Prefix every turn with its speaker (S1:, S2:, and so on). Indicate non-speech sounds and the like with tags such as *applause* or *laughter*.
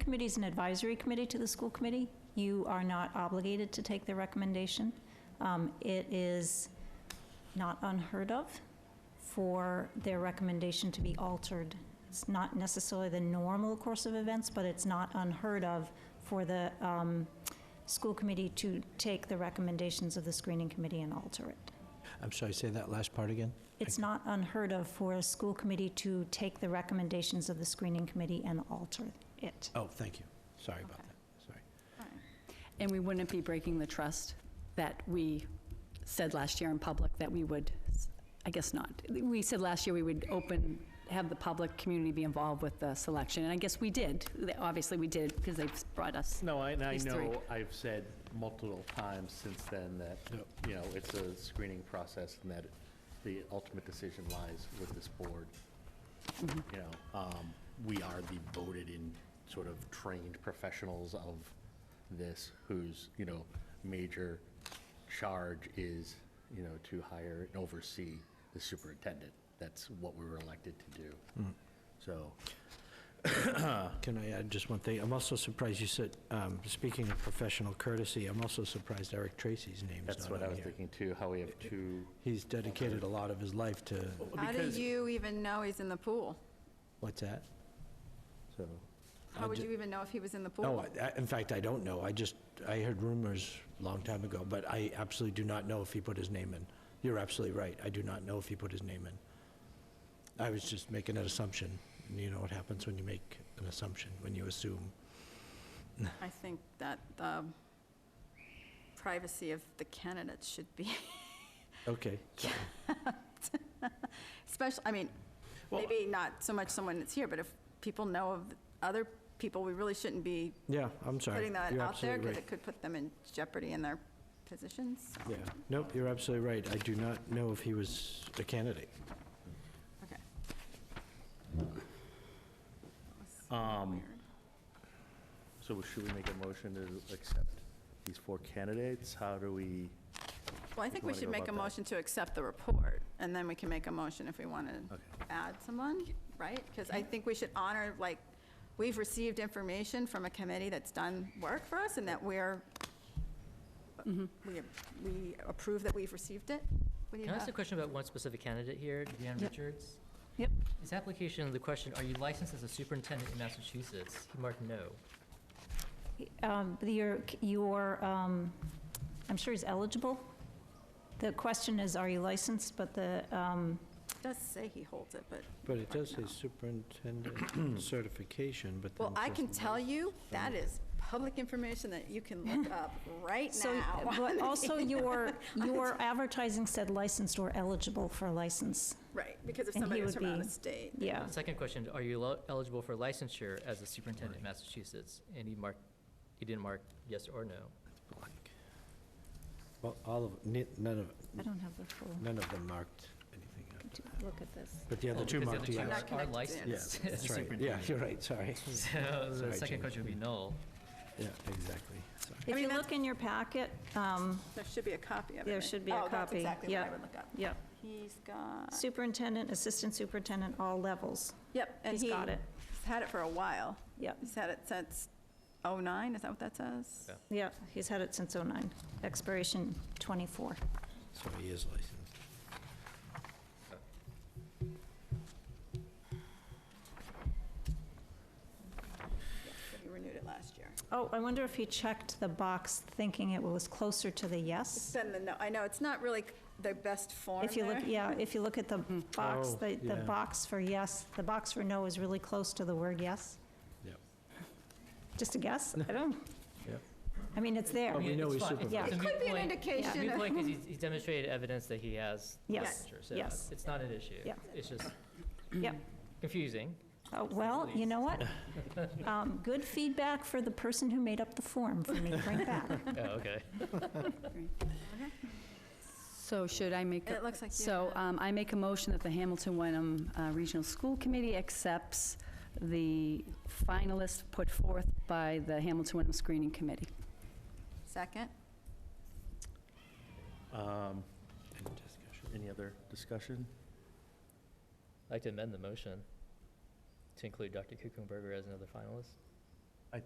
S1: committee is an advisory committee to the school committee. You are not obligated to take their recommendation. Um, It is not unheard of for their recommendation to be altered. It's not necessarily the normal course of events, but it's not unheard of for the um, school committee to take the recommendations of the screening committee and alter it.
S2: I'm sorry, say that last part again?
S1: It's not unheard of for a school committee to take the recommendations of the screening committee and alter it.
S2: Oh, thank you. Sorry about
S3: Okay.
S2: that. Sorry.
S3: And we wouldn't be breaking the trust that we said last year in public that we would, I guess not. We said last year we would open, have the public community be involved with the selection, and I guess we did. Obviously, we did, because they've brought us.
S4: No, I- and I
S3: These three.
S4: know I've said multiple times since then that, you know, it's a screening process and that the ultimate decision lies with this board.
S3: Mm-hmm.
S4: You know, um, we are the voted-in, sort of trained professionals of this, whose, you know, major charge is, you know, to hire and oversee the superintendent. That's what we were elected to do.
S2: Mm.
S4: So,
S2: Can I add just one thing? I'm also surprised you said, um, speaking of professional courtesy, I'm also surprised Eric Tracy's name's
S4: that's
S2: not
S4: what I
S2: on
S4: was
S2: here.
S4: thinking too, how we have two
S2: He's dedicated a lot of his life to,
S5: How do
S4: Because-
S5: you even know he's in the pool?
S2: what's that?
S4: So,
S5: How
S2: I
S5: would
S2: ju-
S5: you even know if he was in the pool?
S2: No, I- I- in fact, I don't know. I just, I heard rumors a long time ago, but I absolutely do not know if he put his name in. You're absolutely right. I do not know if he put his name in. I was just making an assumption. and You know what happens when you make an assumption, when you assume.
S5: I think that the privacy of the candidates should be *laughs*
S2: Okay. sorry.
S5: special, I mean,
S2: Well-
S5: maybe not so much someone that's here, but if people know of other people, we really shouldn't be
S2: Yeah, I'm sorry.
S5: putting that
S2: You're
S5: out there
S2: absolutely
S5: because
S2: right.
S5: it could put them in jeopardy in their positions. so-
S2: Yeah, nope, you're absolutely right. I do not know if he was a candidate.
S5: Okay. That was
S4: um,
S5: weird.
S4: so should we make a motion to accept these four candidates? How do we,
S5: Well, I think we
S4: wanna
S5: should
S4: go
S5: make a
S4: about that?
S5: motion to accept the report, and then we can make a motion if we want to
S4: Okay.
S5: add someone, right? Because I think we should honor, like, we've received information from a committee that's done work for us, and that we're,
S1: Mm-hmm.
S5: we we approve that we've received it. What do you
S6: Can I ask a
S5: have?
S6: question about one specific candidate here, Deanne
S1: Yep.
S6: Richards?
S1: Yep.
S6: His application, the question, are you licensed as a superintendent in Massachusetts? He marked no.
S1: Um, Your, your, um, I'm sure he's eligible. The question is, are you licensed? But the, um,
S5: It does say he holds it, but,
S2: But it does say
S5: *clears throat*
S2: superintendent certification, but then.
S5: well, I
S2: says
S5: can tell you, that is public information that you can look up right
S1: so,
S5: *laughs* now.
S1: but also
S5: *laughs*
S1: your, your advertising said licensed or eligible for a license.
S5: Right, because if
S1: and he
S5: somebody was
S1: would
S5: from out
S1: be-
S5: of state.
S1: Yeah.
S6: Second question, are you lo- eligible for licensure as a superintendent in Massachusetts? And he marked, he didn't mark yes or no.
S2: blank. Well, all of, ne- none
S1: I
S2: of,
S1: don't have the full,
S2: none of them marked anything. up.
S1: look at this.
S2: But the other
S6: Oh,
S2: two
S6: because
S2: marked
S6: the
S2: yes.
S6: other
S5: Not
S6: two are- are
S2: Yes,
S5: connected.
S6: *laughs* licensed as a
S2: that's right. Yeah,
S6: superintendent.
S2: you're right,
S6: *laughs*
S2: sorry.
S6: So
S2: Sorry,
S6: the second
S2: Jane.
S6: question would be null.
S2: Yeah, exactly, sorry.
S1: If
S5: mean,
S1: you
S5: that's-
S1: look in your packet, um,
S5: There should be a copy of it.
S1: There
S5: right?
S1: should be a
S5: Oh, that's
S1: copy,
S5: exactly what I
S1: yeah.
S5: would look up.
S1: yep,
S5: He's got,
S1: superintendent, assistant superintendent, all levels.
S5: yep, and
S1: He's
S5: he-
S1: got it.
S5: He's had it for a while.
S1: Yep,
S5: He's had it since '09, is that what that says?
S6: Yeah.
S1: yep, he's had it since '09, expiration '24.
S2: So he is licensed.
S5: He renewed it last year.
S1: Oh, I wonder if he checked the box thinking it was closer to the yes?
S5: Then the, no, I know, it's not really the best form
S1: If you look,
S5: there.
S1: yeah, if you look at the box,
S2: Oh,
S1: the, the
S2: yeah.
S1: box for yes, the box for no is really close to the word yes?
S2: Yep,
S1: Just a guess? I don't,
S2: yep.
S1: I mean, it's there.
S2: Well, we
S6: mean,
S2: know
S6: it's
S2: he's
S6: fine. It's-
S2: supervised.
S6: it's a
S5: It
S6: moot
S5: could be an
S6: point. It's a
S5: indication.
S6: moot
S5: of-
S6: point because he's, he's demonstrated evidence that he has
S1: Yes,
S6: licensure. So
S1: yes.
S6: it's not an issue.
S1: Yeah.
S6: It's just
S1: Yep.
S6: confusing.
S1: Oh, Well, you know
S2: *laughs*
S1: what? Um, Good feedback for the person who made up the form for me, bring back.
S6: Oh, okay.
S3: So should I make? a-
S5: It looks like you
S3: So
S5: have-
S3: um, I make a motion that the Hamilton Wenham uh, Regional School Committee accepts the finalists put forth by the Hamilton Wenham Screening Committee.
S5: Second?
S4: um,
S2: Any discussion?
S4: any other discussion?
S6: I'd like to amend the motion to include Dr. Kuchenberger as another finalist.
S4: I